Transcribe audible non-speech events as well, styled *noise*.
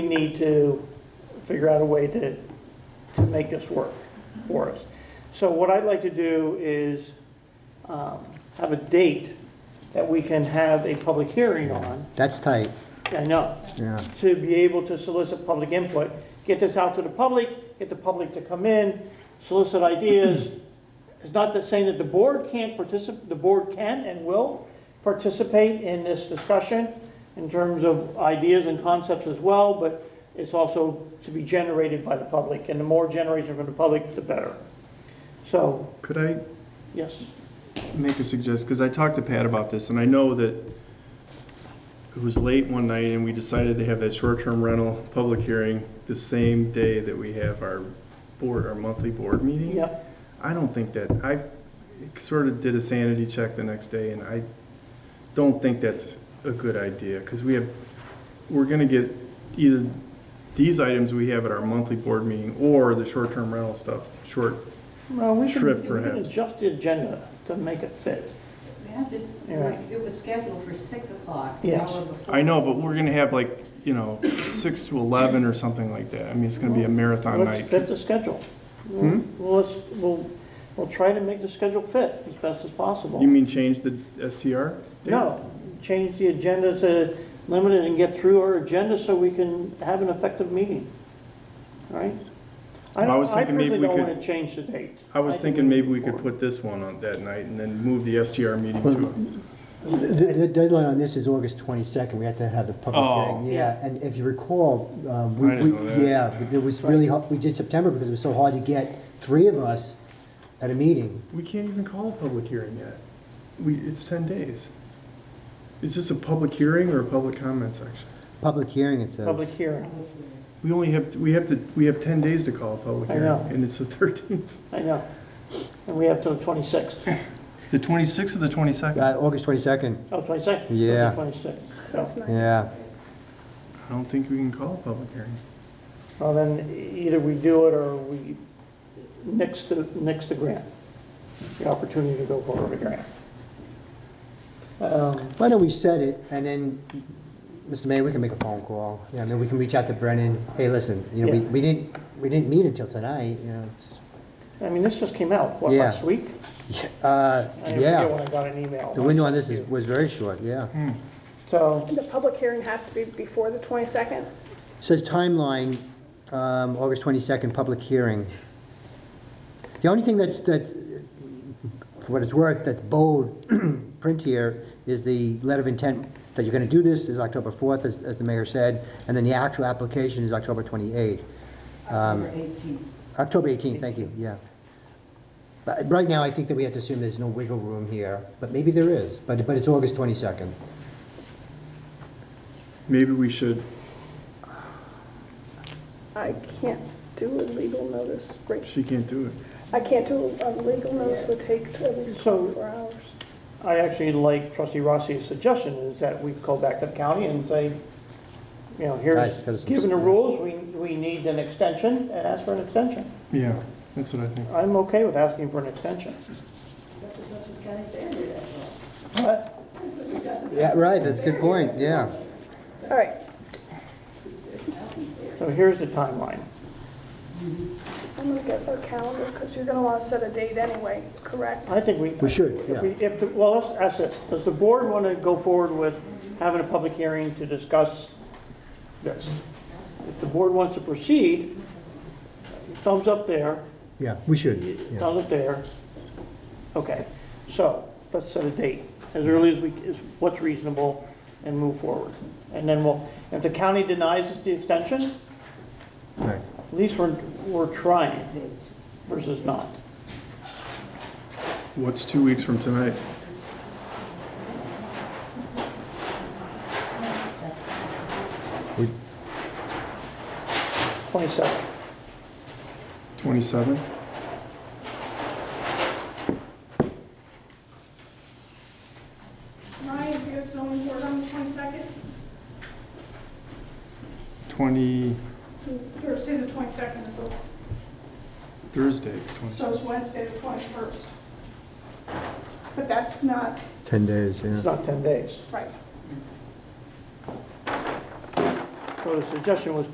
We need to figure out a way to, to make this work for us. So what I'd like to do is um, have a date that we can have a public hearing on, That's tight, I know, yeah. to be able to solicit public input, get this out to the public, get the public to come in, solicit ideas. It's not that saying that the board can't participate, the board can and will participate in this discussion in terms of ideas and concepts as well, but it's also to be generated by the public, and the more generation from the public, the better. So, Could I yes, make a suggestion? Because I talked to Pat about this, and I know that it was late one night, and we decided to have that short-term rental public hearing the same day that we have our board, our monthly board meeting. yep, I don't think that, I sort of did a sanity check the next day, and I don't think that's a good idea, because we have, we're gonna get either these items we have at our monthly board meeting, or the short-term rental stuff, short, well, we can, Trip, we can perhaps. adjust the agenda to make it fit. We had this, Yeah. it was scheduled for 6 o'clock, the Yes. hour before. I know, but we're gonna have like, you know, six to eleven or something like that. I mean, it's gonna be a marathon Let's night. fit the schedule. Hmm? Well, let's, we'll, we'll try to make the schedule fit as best as You possible. mean change the STR? date? No, change the agenda to limit it and get through our agenda so we can have an effective meeting, All right? I I don't, was I thinking maybe personally we don't could- want to change the date. I was think thinking maybe move we could forward. put this one on that night and then move the STR meeting to, The the deadline on this is August 22nd, we have to have the public Oh. hearing. Yeah, and if you recall, um, we, I didn't we- know that. yeah, it was really, hard- we did September because it was so hard to get three of us at a meeting. we can't even call a public hearing yet. We, it's ten days. Is this a public hearing or a public comment section? Public hearing, it says. Public hearing, We only have, we have to, we have ten days to call a public I hearing, know. and it's the thirteenth. I know. And we have till the 26th, *laughs* The twenty-sixth or the twenty-second? Uh, August 22nd, oh, 22nd? Yeah. 26th, so, yeah. I don't think we can call a public hearing. well, then either we do it or we nix the, nix the grant, the opportunity to go forward with a grant. Um, Why don't we set it, and then, Mr. Mayor, we can make a phone call. Yeah, I mean, we can reach out to Brennan, hey, listen, you know, we Yeah. we didn't, we didn't meet until tonight, you know, it's, I mean, this just came out, what, Yeah. last week? uh, I forget when yeah. I got an email. The window on this is, was very short, yeah. Hmm. So, The public hearing has to be before the 22nd? Says timeline, um, August 22nd, public hearing. The only thing that's, that, for what it's worth, that's bold *clears throat* print here is the letter of intent that you're going to do this is October 4th, as, as the mayor said, and then the actual application is October 28th. October 18th. October 18th, thank you, yeah. But right now, I think that we have to assume there's no wiggle room here, but maybe there is, but, but it's August 22nd. Maybe we should I can't do a legal notice, right? She can't do it. I can't do, a legal notice would take at least So- 24 hours. I actually like trustee Rossi's suggestion, is that we go back to the county and say, you know, Guys, here's, gotta s- given the rules, we, we need an extension, and ask for an extension. Yeah, that's what I think. I'm okay with asking for an extension. That's as much as County Fair did, after all. But Yeah, right, that's a good point, yeah. All right, So here's the timeline. I'm gonna get a calendar, because you're gonna want to set a date anyway, correct? I think we. We should, if yeah. we- If, the- well, let's ask this, does the board want to go forward with having a public hearing to discuss this? If the board wants to proceed, thumbs up there, Yeah, we should, yeah. Down it there. Okay, so let's set a date as early as we, is what's reasonable and move forward. And then we'll, if the county denies us the extension, at Right. least we're, we're trying versus not. What's two weeks from tonight? We- 27. Twenty-seven? Ryan, do you have zoning board on the 22nd? Twenty, So Thursday, the 22nd is open, Thursday, twenty. it's Wednesday, the 21st. But that's not 10 days, It's yeah. not 10 days. right. So the suggestion was